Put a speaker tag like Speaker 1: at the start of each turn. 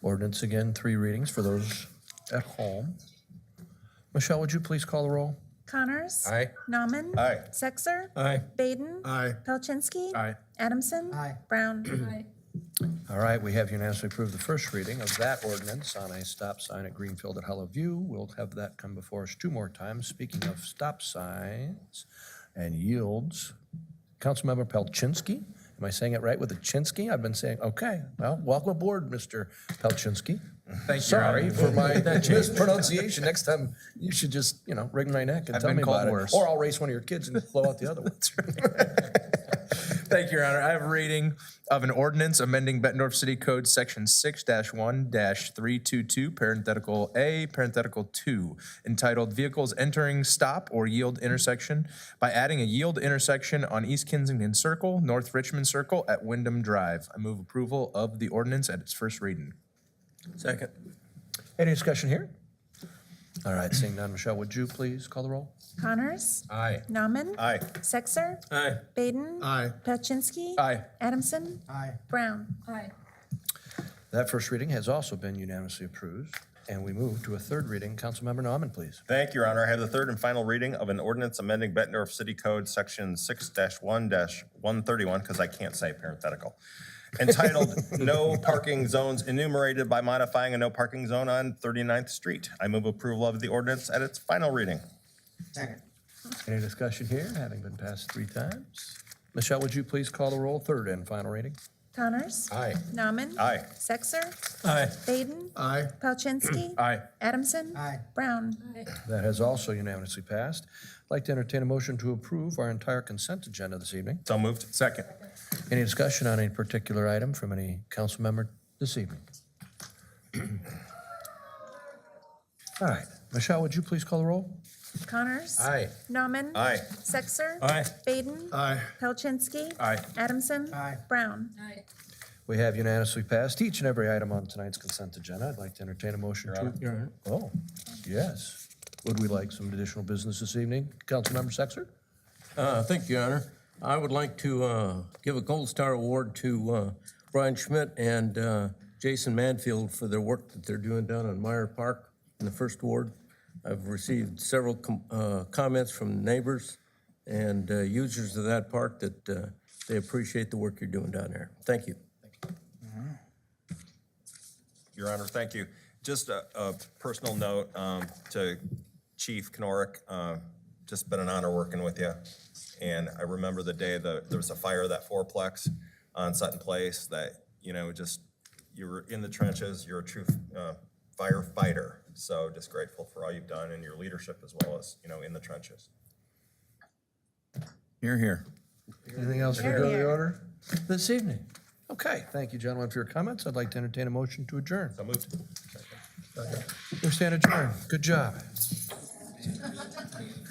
Speaker 1: Ordinance again, three readings for those at home. Michelle, would you please call the roll?
Speaker 2: Connors.
Speaker 3: Aye.
Speaker 2: Nauman.
Speaker 3: Aye.
Speaker 2: Sexer.
Speaker 3: Aye.
Speaker 2: Baden.
Speaker 3: Aye.
Speaker 2: Palczynski.
Speaker 1: Aye.
Speaker 2: Adamson.
Speaker 4: Aye.
Speaker 2: Brown.
Speaker 1: All right, we have unanimously approved the first reading of that ordinance on a stop sign at Greenfield at Hollow View. We'll have that come before us two more times. Speaking of stop signs and yields, Councilmember Palczynski, am I saying it right with the Chinsky? I've been saying, okay, well, welcome aboard, Mr. Palczynski.
Speaker 3: Thank you.
Speaker 1: Sorry
Speaker 3: Ronnie.
Speaker 1: for my
Speaker 3: That changed.
Speaker 1: mispronunciation. Next time, you should just, you know, wring my neck and
Speaker 3: I've
Speaker 1: tell
Speaker 3: been
Speaker 1: me about
Speaker 3: called
Speaker 1: it.
Speaker 3: worse.
Speaker 1: Or I'll race one of your kids and blow out the other one.
Speaker 3: Thank you, Your Honor. I have a reading of an ordinance amending Bettendorf City Code, Section six one three two two, parenthetical A, parenthetical two, entitled Vehicles Entering Stop or Yield Intersection by adding a yield intersection on East Kensington Circle, North Richmond Circle at Wyndham Drive. I move approval of the ordinance at its first reading. Second.
Speaker 1: Any discussion here? All right, seeing none, Michelle, would you please call the roll?
Speaker 2: Connors.
Speaker 3: Aye.
Speaker 2: Nauman.
Speaker 3: Aye.
Speaker 2: Sexer.
Speaker 3: Aye.
Speaker 2: Baden.
Speaker 3: Aye.
Speaker 2: Palczynski.
Speaker 3: Aye.
Speaker 2: Adamson.
Speaker 4: Aye.
Speaker 2: Brown.
Speaker 1: That first reading has also been unanimously approved, and we move to a third reading. Councilmember Nauman, please.
Speaker 5: Thank you, Your Honor. I have the third and final reading of an ordinance amending Bettendorf City Code, Section six one one thirty-one, because I can't say parenthetical, entitled No Parking Zones Enumerated by Modifying a No Parking Zone on 39th Street. I move approval of the ordinance at its final reading.
Speaker 4: Second.
Speaker 1: Any discussion here, having been passed three times? Michelle, would you please call the roll, third and final reading?
Speaker 2: Connors.
Speaker 3: Aye.
Speaker 2: Nauman.
Speaker 5: Aye.
Speaker 2: Sexer.
Speaker 3: Aye.
Speaker 2: Baden.
Speaker 3: Aye.
Speaker 2: Palczynski.
Speaker 3: Aye.
Speaker 2: Adamson.
Speaker 4: Aye.
Speaker 2: Brown.
Speaker 1: That has also unanimously passed. I'd like to entertain a motion to approve our entire consent agenda this evening.
Speaker 5: So moved.
Speaker 3: Second.
Speaker 1: Any discussion on any particular item from any council member this evening? All right, Michelle, would you please call the roll?
Speaker 2: Connors.
Speaker 3: Aye.
Speaker 2: Nauman.
Speaker 5: Aye.
Speaker 2: Sexer.
Speaker 3: Aye.
Speaker 2: Baden.
Speaker 3: Aye.
Speaker 2: Palczynski.
Speaker 3: Aye.
Speaker 2: Adamson.
Speaker 4: Aye.
Speaker 2: Brown.
Speaker 1: We have unanimously passed each and every item on tonight's consent agenda. I'd like to entertain a motion to. Oh, yes. Would we like some additional business this evening? Councilmember Sexer?
Speaker 6: Uh, Thank you, Your Honor. I would like to uh, give a Gold Star Award to uh, Brian Schmidt and uh, Jason Manfield for their work that they're doing down on Meyer Park in the First Ward. I've received several com- uh, comments from neighbors and uh, users of that park that uh, they appreciate the work you're doing down there. Thank you.
Speaker 5: Your Honor, thank you. Just a, a personal note um, to Chief Knorick, uh, just been an honor working with you. And I remember the day that there was a fire, at that fourplex on Sutton Place, that, you know, just, you were in the trenches, you're a true uh, firefighter. So just grateful for all you've done and your leadership as well as, you know, in the trenches.
Speaker 3: You're here.
Speaker 1: Anything else for the
Speaker 2: Here.
Speaker 1: order this evening? Okay, thank you, gentlemen, for your comments. I'd like to entertain a motion to adjourn.
Speaker 5: So moved.
Speaker 1: We stand adjourned. Good job.